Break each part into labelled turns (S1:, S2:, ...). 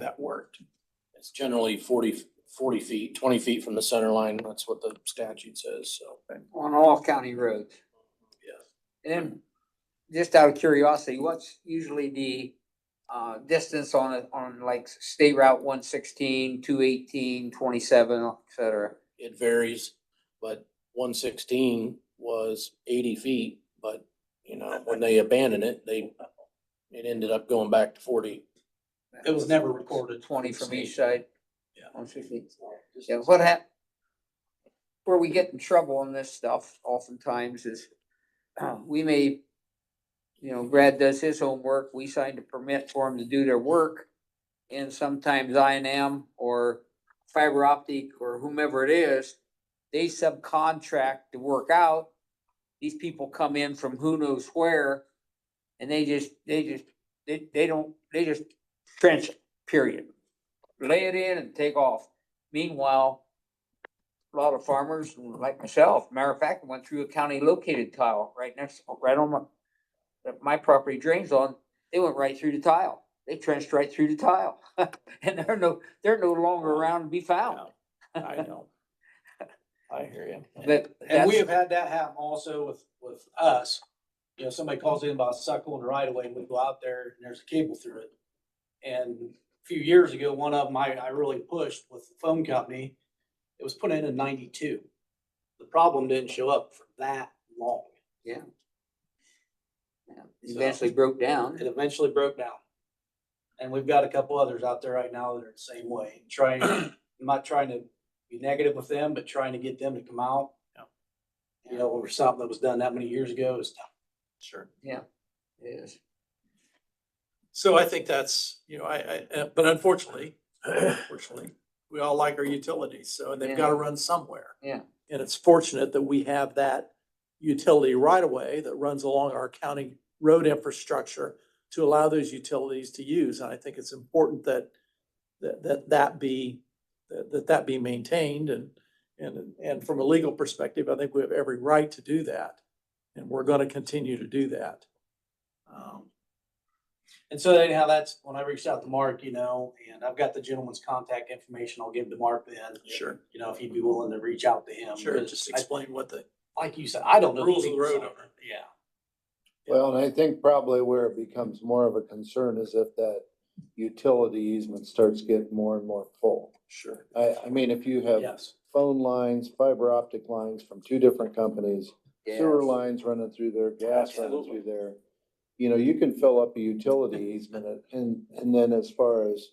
S1: that worked.
S2: It's generally 40 40 feet, twenty feet from the center line. That's what the statute says, so.
S3: on all county roads.
S2: Yes.
S3: And just out of curiosity, what's usually the uh distance on it, on like State Route 116, 218, 27, et cetera?
S2: It varies, but one sixteen was eighty feet, but, you know, when they abandoned it, they, it ended up going back to forty.
S1: It was never recorded.
S3: Twenty from each side?
S1: Yeah.
S3: On fifty. Yeah, what hap- where we get in trouble on this stuff oftentimes is, uh, we may, you know, Brad does his homework, we signed a permit for him to do their work. And sometimes I and M or fiber optic or whomever it is, they subcontract the work out. These people come in from who knows where, and they just, they just, they, they don't, they just trench it, period. Lay it in and take off. Meanwhile, a lot of farmers like myself, matter of fact, I went through a county located tile right next, right on my, that my property drains on, they went right through the tile. They trenched right through the tile. And they're no, they're no longer around to be found,
S2: I know. I hear you.
S3: but.
S1: And
S3: that's-
S1: we have had that happen also with, with us. You know, somebody calls in about a suck on the right of way, and we go out there and there's a cable through it. And a few years ago, one of them I, I really pushed with the phone company. It was put in in ninety-two. The problem didn't show up for that long.
S3: Yeah, Eventually broke down.
S1: It eventually broke down. And we've got a couple others out there right now that are the same way, trying, I'm not trying to be negative with them, but trying to get them to come out. You know, over something that was done that many years ago is tough.
S4: Sure.
S3: Yes.
S4: So I think that's, you know, I, I, uh, but unfortunately, unfortunately, we all like our utilities, so they've got to run somewhere.
S3: Yeah.
S4: And it's fortunate that we have that utility right away that runs along our county road infrastructure to allow those utilities to use. And I think it's important that, that, that, that be, that, that that be maintained and, and, and from a legal perspective, I think we have every right to do that. And we're going to continue to do that. Um,
S1: And so anyhow, that's when I reached out to Mark, you know, and I've got the gentleman's contact information. I'll give to Mark then.
S4: Sure.
S1: You know, if he'd be willing to reach out to him.
S4: Sure,
S1: But
S4: just
S1: I-
S4: explain what the,
S1: Like you said, I don't know.
S4: Rules of the road
S1: details
S4: are.
S1: Yeah.
S5: Well, and I think probably where it becomes more of a concern is if that utility easement starts getting more and more full.
S4: sure,
S5: I, I mean, if you have
S1: Yes.
S5: phone lines, fiber optic lines from two different companies, sewer lines running through there, gas running
S4: Absolutely.
S5: through there. You know, you can fill up a utility easement and, and then as far as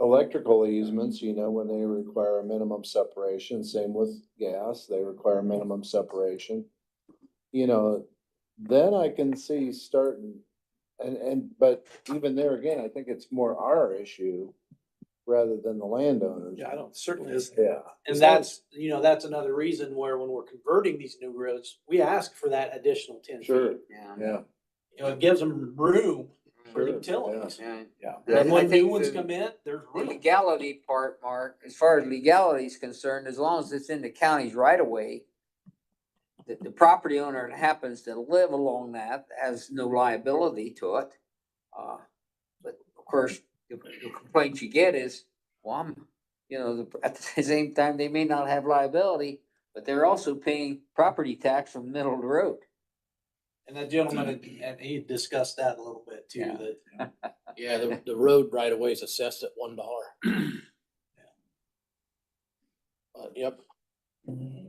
S5: electrical easements, you know, when they require a minimum separation, same with gas, they require minimum separation. You know, then I can see starting, and, and, but even there again, I think it's more our issue rather than the landowners.
S4: yeah, I don't, certainly isn't.
S5: Yeah.
S1: And
S4: As long
S1: that's, you know, that's another reason where when we're converting these new roads, we ask for that additional ten feet.
S5: Sure,
S1: You
S3: Yeah.
S5: yeah.
S1: know, it gives them room for
S5: Sure,
S1: utilities.
S3: Yeah.
S5: Yeah.
S3: And I-
S1: And when
S3: I think
S1: new ones
S3: the-
S1: come in, there's
S3: The
S1: room.
S3: legality part, Mark, as far as legality is concerned, as long as it's in the county's right of way, the, the property owner that happens to live along that has no liability to it. Uh, but of course, the the complaint you get is, well, I'm, you know, the- at the same time, they may not have liability, but they're also paying property tax from the middle of the road.
S1: And that gentleman, had- and he discussed that a little bit too,
S3: Yeah.
S1: that
S2: Yeah, the, the road right away is assessed at one dollar. Uh, yep,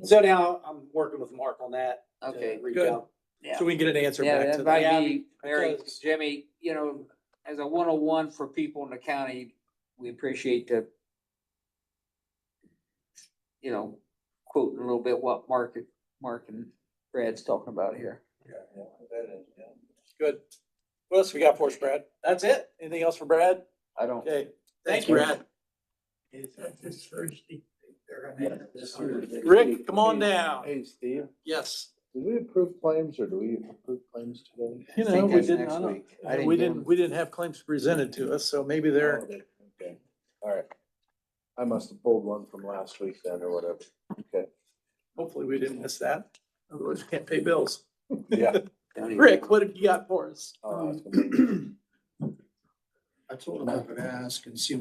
S1: So now I'm working with Mark on that. to
S3: Okay.
S1: reach
S4: Good.
S1: out.
S3: Yeah.
S4: So we can get an answer
S3: Yeah,
S4: back
S3: that
S4: to that.
S1: Yeah,
S3: might be, Mary,
S1: because-
S3: Jimmy, you know, as a one oh one for people in the county, we appreciate the. You know, quoting a little bit what Mark, and- Mark and Brad's talking about here.
S4: Good. What else we got for us, Brad?
S1: That's it.
S4: Anything else for Brad?
S3: I don't.
S4: Okay, thanks,
S1: Thank you.
S4: Brad.
S5: Rick,
S4: Rick, come on down.
S5: Hey, Steve,
S4: Yes.
S5: did we approve claims or do we approve claims today?
S4: You
S3: I think
S4: know, we
S3: that's
S4: didn't,
S3: next
S4: I don't-
S3: week. I
S4: we
S3: get
S4: didn't,
S3: 'em.
S4: we didn't have claims presented to us, so maybe
S5: Oh,
S4: they're,
S5: they- Okay, all right. I must have pulled one from last week then or whatever. Okay.
S4: hopefully we didn't miss that. Otherwise, we can't pay bills.
S5: Yeah.
S3: Don't even-
S4: Uh, Rick, what have you got for us?
S5: I'll ask them.
S4: I told him I would ask and see